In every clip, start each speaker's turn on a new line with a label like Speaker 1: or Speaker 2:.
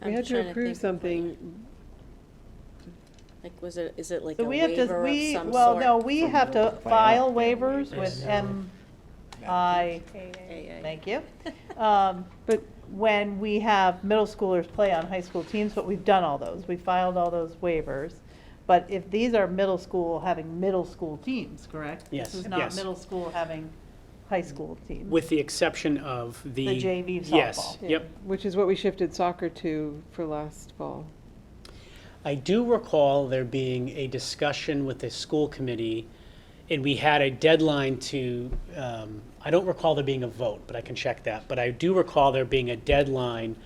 Speaker 1: We
Speaker 2: I'm
Speaker 1: had
Speaker 2: trying
Speaker 1: to
Speaker 2: to
Speaker 1: approve
Speaker 2: think of
Speaker 1: something.
Speaker 2: Like, was it, is it like
Speaker 3: So
Speaker 2: a
Speaker 3: we have
Speaker 2: waiver of
Speaker 3: to, we,
Speaker 2: some
Speaker 3: well, no,
Speaker 2: sort?
Speaker 3: we have to file waivers with
Speaker 4: Yeah.
Speaker 3: MI,
Speaker 2: AA.
Speaker 3: thank you.
Speaker 2: Uh,
Speaker 3: Um, But when we have middle schoolers play on high school teams, but we've done all those, we filed all those waivers. But if these are middle school having middle school teams, correct?
Speaker 4: Yes,
Speaker 3: This is not
Speaker 4: yes.
Speaker 3: middle school having high school teams.
Speaker 4: With the exception of the.
Speaker 3: The JV
Speaker 4: Yes,
Speaker 3: softball.
Speaker 4: yep.
Speaker 1: Which is what we shifted soccer to for last fall.
Speaker 4: I do recall there being a discussion with the school committee, and we had a deadline to, um, I don't recall there being a vote, but I can check that. But I do recall there being a deadline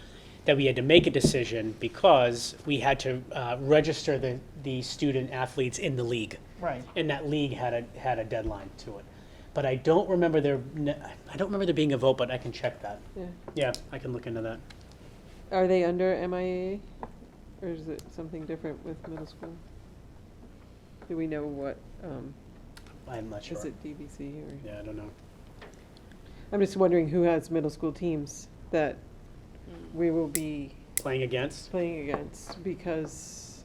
Speaker 4: that we had to make a decision because we had to uh, register the, the student athletes in the league.
Speaker 3: Right.
Speaker 4: And that league had a, had a deadline to it. But I don't remember there, I don't remember there being a vote, but I can check that.
Speaker 1: Yeah.
Speaker 4: Yeah, I can look into that.
Speaker 1: Are they under MIA? Or is it something different with middle school? Do we know what, um,
Speaker 4: I'm not sure.
Speaker 1: is it DVC or?
Speaker 4: Yeah, I don't know.
Speaker 1: I'm just wondering who has middle school teams that we will be
Speaker 4: Playing against?
Speaker 1: playing against because,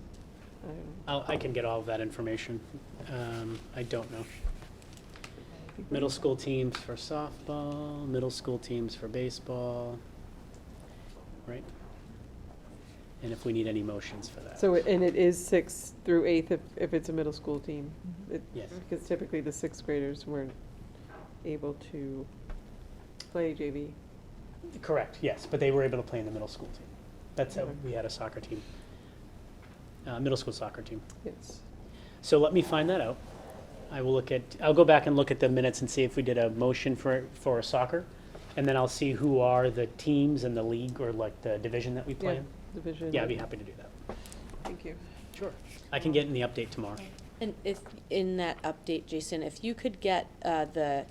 Speaker 1: I don't know.
Speaker 4: I'll, I can get all of that information. Um, I don't know. Middle school teams for softball, middle school teams for baseball, right? And if we need any motions for that.
Speaker 1: So, and it is sixth through eighth if, if it's a middle school team? It-
Speaker 4: Yes.
Speaker 1: Because typically the sixth graders weren't able to play JV.
Speaker 4: Correct, yes, but they were able to play in the middle school team. That's how we had a soccer team, uh, middle school soccer team.
Speaker 1: Yes.
Speaker 4: So let me find that out. I will look at, I'll go back and look at the minutes and see if we did a motion for, for soccer. And then I'll see who are the teams in the league or like the division that we play
Speaker 1: Yeah,
Speaker 4: in.
Speaker 1: division.
Speaker 4: Yeah, I'd be happy to do that.
Speaker 1: Thank you.
Speaker 4: Sure. I can get in the update tomorrow.
Speaker 2: And if, in that update, Jason, if you could get uh, the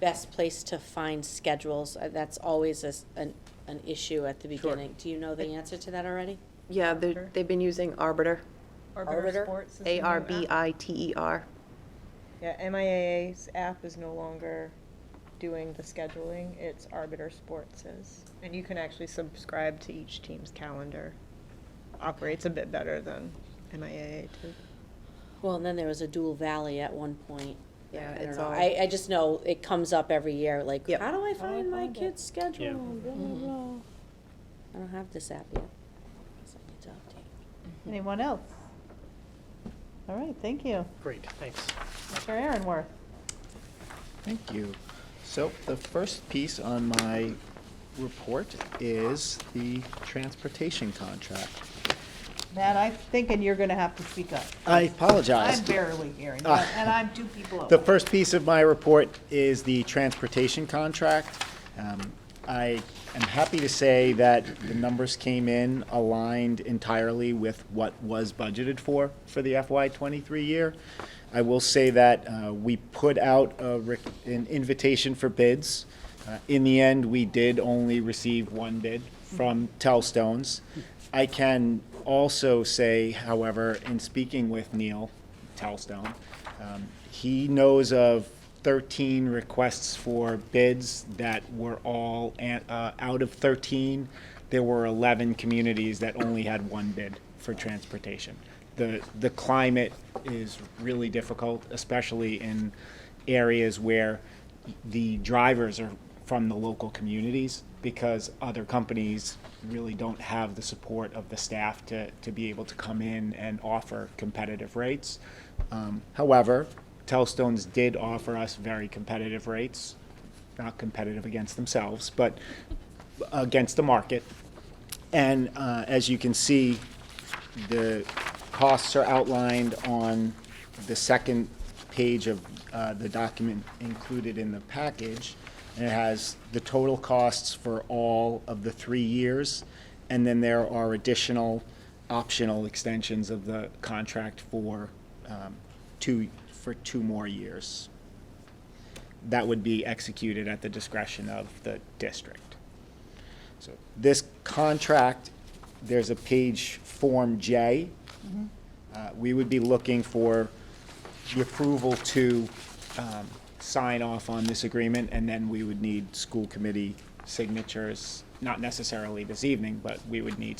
Speaker 2: best place to find schedules, uh, that's always a s- an, an issue at the beginning. Do you know the answer to that already?
Speaker 5: Yeah, they're- they've been using Arbiter,
Speaker 2: Arbiter?
Speaker 6: Arbiter Sports. is the new app.
Speaker 5: A-R-B-I-T-E-R.
Speaker 6: Yeah, MIAA's app is no longer doing the scheduling, it's Arbiter Sports is. And you can actually subscribe to each team's calendar. Operates a bit better than MIAA too.
Speaker 2: Well, and then there was a dual valley at one point.
Speaker 5: Yeah,
Speaker 2: I don't
Speaker 5: it's
Speaker 2: know.
Speaker 5: all-
Speaker 2: I, I just know it comes up every year, like,
Speaker 5: Yep.
Speaker 2: how do I
Speaker 6: do I
Speaker 2: find my
Speaker 6: find it?
Speaker 2: kid's schedule?
Speaker 4: Yeah.
Speaker 2: Blah, blah, blah. I don't have this app yet. Guess I need to update.
Speaker 4: Mhm.
Speaker 3: Anyone else? All right, thank you.
Speaker 4: Great, thanks.
Speaker 3: Mr. Aaronworth.
Speaker 7: Thank you. So the first piece on my report is the transportation contract.
Speaker 3: Matt, I'm thinking you're going to have to speak up.
Speaker 7: I
Speaker 3: I'm
Speaker 7: apologize.
Speaker 3: barely hearing,
Speaker 7: Ah.
Speaker 3: but- and I'm two people
Speaker 7: The
Speaker 3: over.
Speaker 7: first piece of my report is the transportation contract. Um, I am happy to say that the numbers came in aligned entirely with what was budgeted for, for the FY '23 year. I will say that uh, we put out a rec- an invitation for bids. Uh, In the end, we did only receive one bid from Telstones. I can also say, however, in speaking with Neil Telstone, um, he knows of 13 requests for bids that were all, an- uh, out of 13, there were 11 communities that only had one bid for transportation. The, the climate is really difficult, especially in areas where the drivers are from the local communities because other companies really don't have the support of the staff to, to be able to come in and offer competitive rates. Um, however, Telstones did offer us very competitive rates, not competitive against themselves, but against the market. And uh, as you can see, the costs are outlined on the second page of uh, the document included in the package. And it has the total costs for all of the three years. And then there are additional optional extensions of the contract for um, two, for two more years. That would be executed at the discretion of the district. So this contract, there's a page Form J. Uh, We would be looking for the approval to um, sign off on this agreement, and then we would need school committee signatures, not necessarily this evening, but we would need